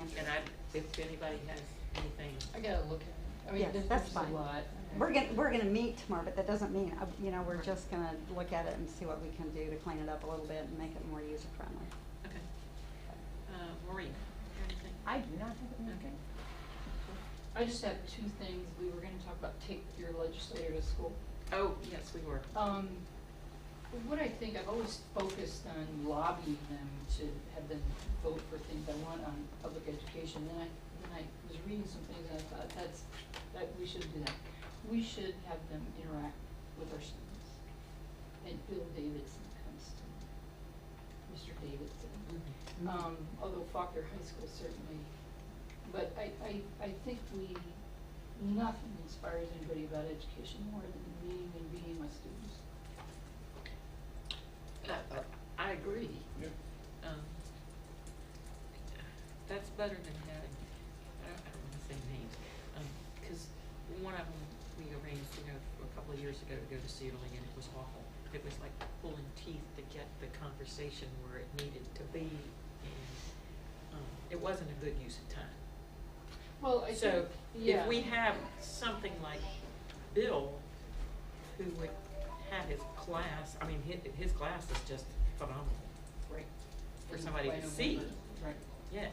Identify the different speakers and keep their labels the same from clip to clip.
Speaker 1: and I, if anybody has anything,
Speaker 2: I gotta look at it. I mean,
Speaker 3: Yes,
Speaker 2: there's,
Speaker 3: that's
Speaker 2: there's
Speaker 3: fine.
Speaker 2: a lot.
Speaker 3: We're gonna, we're gonna meet tomorrow, but that doesn't mean, uh, you know, we're just gonna look at it and see what we can do to clean it up a little bit and make it more user friendly.
Speaker 1: okay. Uh, Maureen, you have anything?
Speaker 4: I do not have anything.
Speaker 1: Okay.
Speaker 2: I just have two things. We were gonna talk about take your legislator to school.
Speaker 1: Oh, yes, we were.
Speaker 2: Um, what I think, I've always focused on lobbying them to have them vote for things I want on public education. Then I, then I was reading some things and I thought, that's, that, we should do that. We should have them interact with our students. And Bill Davidson comes to mind, Mr. Davidson.
Speaker 3: Mm-hmm.
Speaker 2: Um, although Faulkner High School certainly, but I, I, I think we, nothing inspires anybody about education more than meeting and being with students.
Speaker 1: Uh, uh, I agree. Um, That's better than having, I don't, I don't wanna say names, um, 'cause one of them, we arranged to go, a couple of years ago, to go to Sealing, and it was awful. It was like pulling teeth to get the conversation where it needed to be, and, um, it wasn't a good use of time.
Speaker 2: Well, I
Speaker 1: So
Speaker 2: think, yeah.
Speaker 1: if we have something like Bill, who would have his class, I mean, his, his class is just phenomenal.
Speaker 2: Right.
Speaker 1: for
Speaker 2: And
Speaker 1: somebody
Speaker 2: by
Speaker 1: to see.
Speaker 2: November, Right.
Speaker 1: Yeah,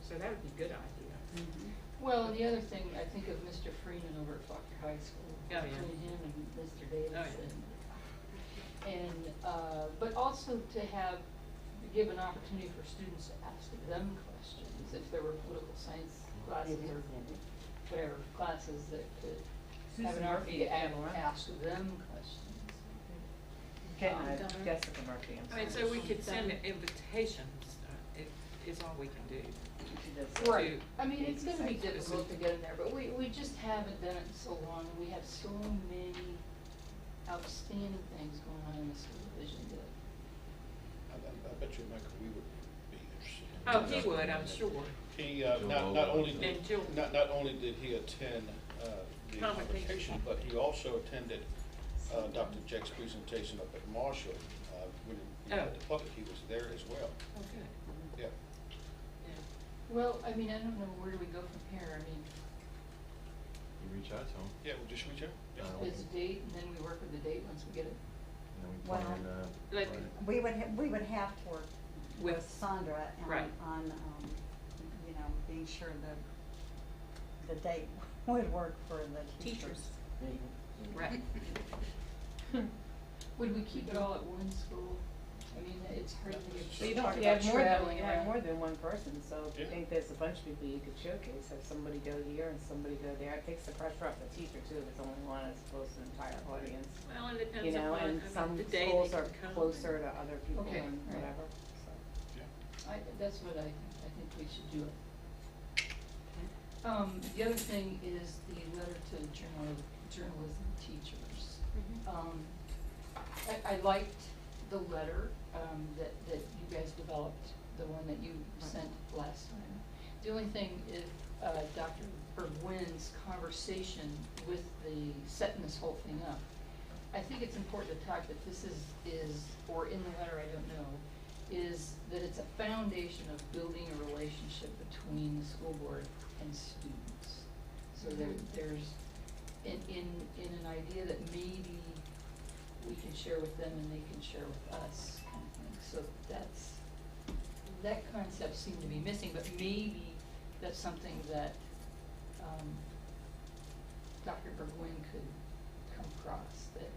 Speaker 1: so that would be a good idea.
Speaker 3: Mm-hmm.
Speaker 2: Well, and the other thing, I think of Mr. Freeman over at Faulkner High School.
Speaker 4: Oh,
Speaker 1: yeah.
Speaker 2: Between him and Mr.
Speaker 1: yeah.
Speaker 2: Davidson. And, uh, but also to have, give an opportunity for students to ask them questions, if there were political science classes or whatever classes that could have an
Speaker 4: Susan Murphy
Speaker 2: opportunity to
Speaker 4: had
Speaker 2: a-
Speaker 4: one.
Speaker 2: ask them questions.
Speaker 4: Je-
Speaker 2: Um,
Speaker 4: uh,
Speaker 2: Donna?
Speaker 4: Jessica Murphy, I'm
Speaker 1: I
Speaker 4: sorry.
Speaker 1: mean, so we could send invitations, uh, it, it's all we can do.
Speaker 4: She does that.
Speaker 1: Right.
Speaker 2: I mean, it's gonna be
Speaker 1: It's- it's-
Speaker 2: difficult to get in there, but we, we just haven't done it in so long, and we have so many outstanding things going on in the school division that,
Speaker 5: I, I- I bet you Michael we would be interested. in
Speaker 1: Oh,
Speaker 5: that.
Speaker 1: he would, I'm sure.
Speaker 5: He, uh, not, not only, did-
Speaker 1: And Jill-
Speaker 5: not, not only did he attend, uh, the
Speaker 1: Convocation.
Speaker 5: convocation, but he also attended, uh, Dr. Jack's presentation up at Marshall, uh, when he
Speaker 1: Oh.
Speaker 5: had the public, he was there as well,
Speaker 1: Oh, good.
Speaker 5: yeah.
Speaker 1: Yeah.
Speaker 2: well, I mean, I don't know, where do we go from here? I mean,
Speaker 6: You reach out to them,
Speaker 5: Yeah, well, just reach out. Yeah.
Speaker 6: Uh,
Speaker 2: it's a date, and then we work with the date once we get it.
Speaker 6: and then we
Speaker 3: Well,
Speaker 6: plan, uh.
Speaker 1: like-
Speaker 6: plan.
Speaker 3: We would, ha- we would have to work with
Speaker 1: With-
Speaker 3: Sandra and
Speaker 1: right.
Speaker 3: on, um, you know, being sure that the date would work for the teachers.
Speaker 1: Teachers. Right.
Speaker 2: Would we keep it all at one school? I mean, it's hard to
Speaker 5: So
Speaker 2: get,
Speaker 4: You
Speaker 2: you
Speaker 5: you
Speaker 4: don't,
Speaker 2: talk
Speaker 4: you have
Speaker 2: about
Speaker 4: more than,
Speaker 2: traveling
Speaker 4: you have more
Speaker 2: around.
Speaker 4: than one person, so if you
Speaker 5: Yeah.
Speaker 4: think there's a bunch of people you could showcase, have somebody go here and somebody go there, it takes the pressure off the teacher too, if it's only one as opposed to an entire audience.
Speaker 1: Well, it
Speaker 4: You
Speaker 1: depends
Speaker 4: know,
Speaker 1: upon, I mean,
Speaker 4: and some
Speaker 1: the day they
Speaker 4: schools
Speaker 1: can
Speaker 4: are
Speaker 1: come.
Speaker 4: closer to other people
Speaker 2: Okay,
Speaker 4: and
Speaker 2: right.
Speaker 4: whatever, so.
Speaker 2: I, that's what I, think. I think we should do it. Um, the other thing is the letter to journal, journalism teachers. Um, I, I liked the letter, um, that, that you guys developed, the one that you sent last time. The only thing is, uh, Dr. Bergwin's conversation with the, setting this whole thing up. I think it's important to talk that this is, is, or in the letter, I don't know, is that it's a foundation of building a relationship between the school board and students. So there, there's, in, in, in an idea that maybe we can share with them and they can share with us kind of thing. So that's, that concept seemed to be missing, but maybe that's something that, um, Dr. Burgoyne could come across, that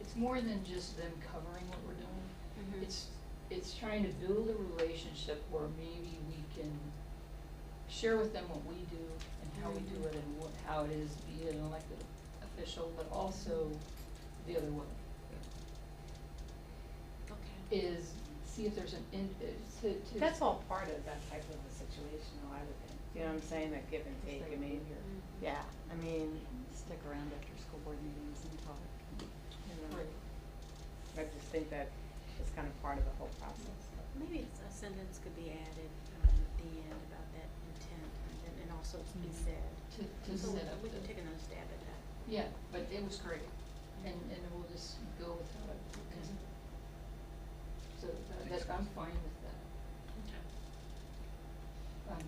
Speaker 2: it's more than just them covering what we're doing. It's, it's trying to build a relationship where maybe we can share with them what we do and how we do it and what, how it is to be an elected official, but also the other way
Speaker 1: Okay.
Speaker 2: is see if there's an in, uh, to, to.
Speaker 4: That's all part of that type of a situation, though, I would think, you know what I'm saying, that give and
Speaker 2: Just
Speaker 4: take,
Speaker 2: like
Speaker 4: I mean,
Speaker 2: here.
Speaker 4: yeah, I mean,
Speaker 3: Stick around after school board meetings and talk.
Speaker 4: you know,
Speaker 2: Right.
Speaker 4: I just think that it's kind of part of the whole process.
Speaker 7: Maybe it's- a sentence could be added um, at the end about that intent and then, and also to
Speaker 3: Mhm.
Speaker 7: be said.
Speaker 2: Mm-hmm. To, to
Speaker 7: So
Speaker 2: set
Speaker 7: we
Speaker 2: up
Speaker 7: we can
Speaker 2: the-
Speaker 7: take another stab at that.
Speaker 2: Yeah, but it was great, and, and we'll just go with how it is. So uh, that, Um, I'm fine with